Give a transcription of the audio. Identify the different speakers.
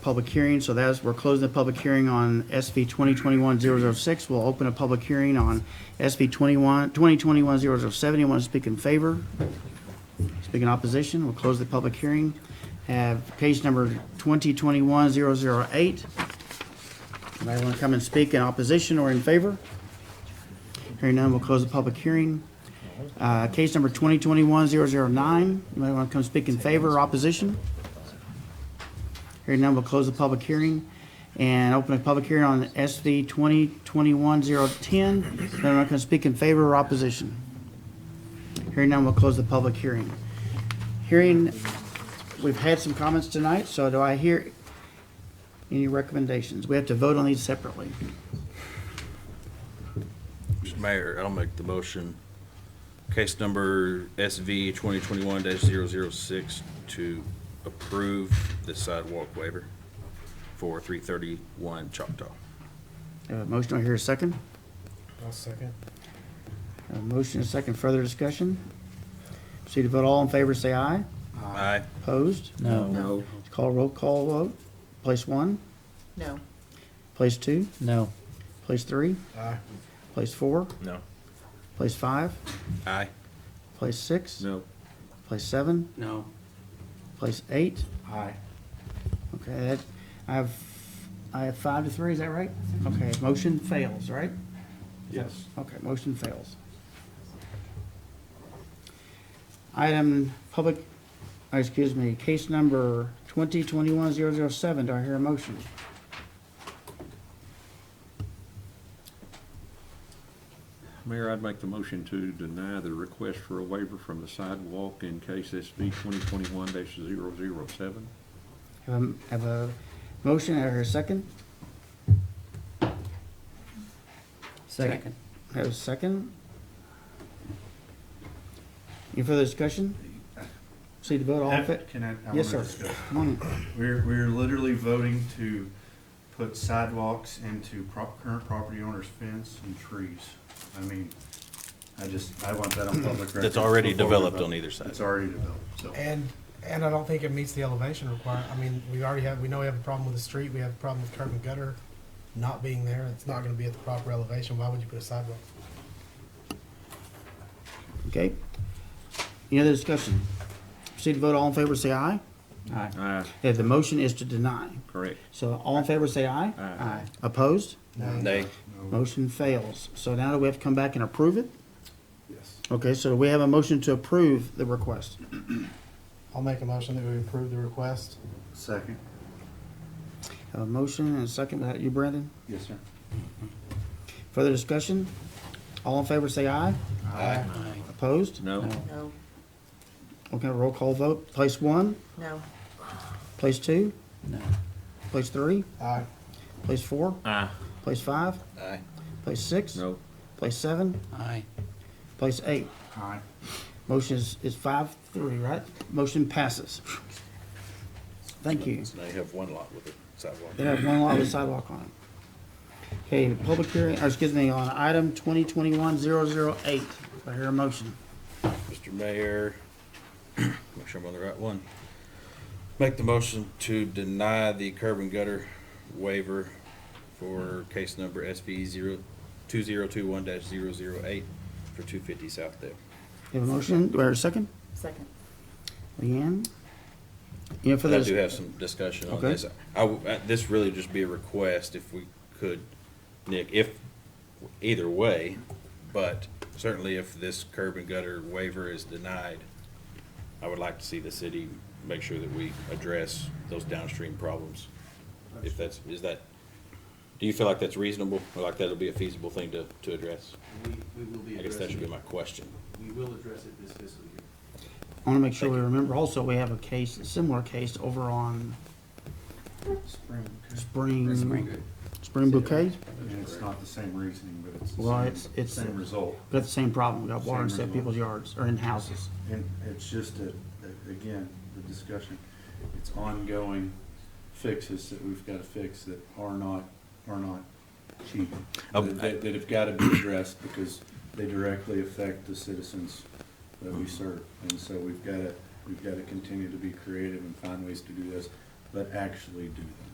Speaker 1: public hearing, so that's, we're closing the public hearing on SV 2021-006. We'll open a public hearing on SV 21, 2021-007. Anyone to speak in favor? Speak in opposition, we'll close the public hearing. Have case number 2021-008. Anybody want to come and speak in opposition or in favor? Hearing none, we'll close the public hearing. Uh, Case number 2021-009, anybody want to come speak in favor or opposition? Hearing none, we'll close the public hearing and open a public hearing on SV 2021-010. Anyone want to come speak in favor or opposition? Hearing none, we'll close the public hearing. Hearing, we've had some comments tonight, so do I hear any recommendations? We have to vote on these separately.
Speaker 2: Mr. Mayor, I'll make the motion. Case number SV 2021-006 to approve the sidewalk waiver for 331 Choctaw.
Speaker 1: Uh, Motion, I hear a second.
Speaker 3: I'll second.
Speaker 1: A motion and a second, further discussion? Proceed to vote, all in favor, say aye.
Speaker 2: Aye.
Speaker 1: Opposed?
Speaker 2: No.
Speaker 1: Call roll call vote. Place one,
Speaker 4: No.
Speaker 1: place two,
Speaker 5: No.
Speaker 1: place three,
Speaker 3: Aye.
Speaker 1: place four,
Speaker 2: No.
Speaker 1: place five,
Speaker 2: Aye.
Speaker 1: place six,
Speaker 2: No.
Speaker 1: place seven,
Speaker 5: No.
Speaker 1: place eight.
Speaker 3: Aye.
Speaker 1: Okay, that, I have, I have five to three, is that right? Okay, motion fails, right?
Speaker 2: Yes.
Speaker 1: Okay, motion fails. Item, public, oh, excuse me, case number 2021-007, do I hear a motion?
Speaker 6: Mayor, I'd make the motion to deny the request for a waiver from the sidewalk in case SB 2021-007.
Speaker 1: Have a, have a motion, I hear a second?
Speaker 5: Second.
Speaker 1: Have a second? Any further discussion? See the vote, all in fa-
Speaker 7: Can I? I
Speaker 1: Yes,
Speaker 7: wanna
Speaker 1: sir.
Speaker 7: discuss.
Speaker 1: Come on in.
Speaker 7: We're, we're literally voting to put sidewalks into prop, current property owner's fence and trees. I mean, I just, I want that on public record.
Speaker 2: That's already
Speaker 7: before we
Speaker 2: developed
Speaker 7: vote.
Speaker 2: on either side.
Speaker 7: It's already developed, so.
Speaker 3: And, and I don't think it meets the elevation requirement. I mean, we already have, we know we have a problem with the street, we have a problem with curb and gutter not being there. It's not gonna be at the proper elevation. Why would you put a sidewalk?
Speaker 1: Okay. Any other discussion? Proceed to vote, all in favor, say aye. Aye.
Speaker 6: Aye,
Speaker 1: Yeah, the motion is to deny.
Speaker 6: correct.
Speaker 1: So all in favor, say aye.
Speaker 6: Aye.
Speaker 1: Opposed?
Speaker 7: Uh,
Speaker 2: Nay.
Speaker 1: Motion fails. So now do we have to come back and approve it?
Speaker 7: Yes.
Speaker 1: Okay, so we have a motion to approve the request.
Speaker 3: I'll make a motion that we approve the request.
Speaker 7: Second.
Speaker 1: A motion and a second, without you, Brandon?
Speaker 7: Yes, sir.
Speaker 1: Further discussion? All in favor, say aye.
Speaker 7: Aye.
Speaker 1: Opposed?
Speaker 6: No?
Speaker 4: No.
Speaker 1: Okay, roll call vote. Place one,
Speaker 4: No.
Speaker 1: place two,
Speaker 5: No.
Speaker 1: place three,
Speaker 3: Aye.
Speaker 1: place four,
Speaker 6: Aye.
Speaker 1: place five,
Speaker 2: Aye.
Speaker 1: place six,
Speaker 6: No.
Speaker 1: place seven,
Speaker 5: Aye.
Speaker 1: place eight.
Speaker 7: Aye.
Speaker 1: Motion is, is five, three, right? Motion passes. Thank you.
Speaker 2: They have one lot with a sidewalk.
Speaker 1: They have one lot with sidewalk on it. Okay, public hearing, or excuse me, on item twenty twenty-one zero zero eight. I hear a motion.
Speaker 2: Mr. Mayor, make sure I'm on the right one. Make the motion to deny the curb and gutter waiver for case number SV zero, two zero two one dash zero zero eight for two fifty South Dale.
Speaker 1: You have a motion, do I hear a second?
Speaker 4: Second.
Speaker 1: Leanne? You know, for
Speaker 2: But I do
Speaker 1: the,
Speaker 2: have some discussion on
Speaker 1: Okay.
Speaker 2: this. I, w- uh, this really would just be a request if we could, Nick, if, either way, but certainly if this curb and gutter waiver is denied, I would like to see the city make sure that we address those downstream problems. If that's, is that, do you feel like that's reasonable, or like that'll be a feasible thing to, to address?
Speaker 8: We, we will be
Speaker 2: I guess that should
Speaker 8: addressing
Speaker 2: be
Speaker 8: it.
Speaker 2: my question.
Speaker 8: We will address it this fiscal year.
Speaker 1: I wanna make sure we remember also, we have a case, a similar case over on
Speaker 7: Spring.
Speaker 1: Spring,
Speaker 8: Good.
Speaker 1: Spring Bouquet.
Speaker 7: And it's not the same reasoning, but it's
Speaker 1: Well,
Speaker 7: the
Speaker 1: it's-
Speaker 7: same,
Speaker 1: it's-
Speaker 7: same result.
Speaker 1: We got the same problem, we got water in
Speaker 7: Same
Speaker 1: set
Speaker 7: result.
Speaker 1: people's yards, or in houses.
Speaker 7: And it's just a, a- again, the discussion, it's ongoing fixes that we've gotta fix that are not, are not cheap.
Speaker 2: Um,
Speaker 7: That, that- that have gotta be addressed because they directly affect the citizens that we serve. And so we've gotta, we've gotta continue to be creative and find ways to do this, but actually do them.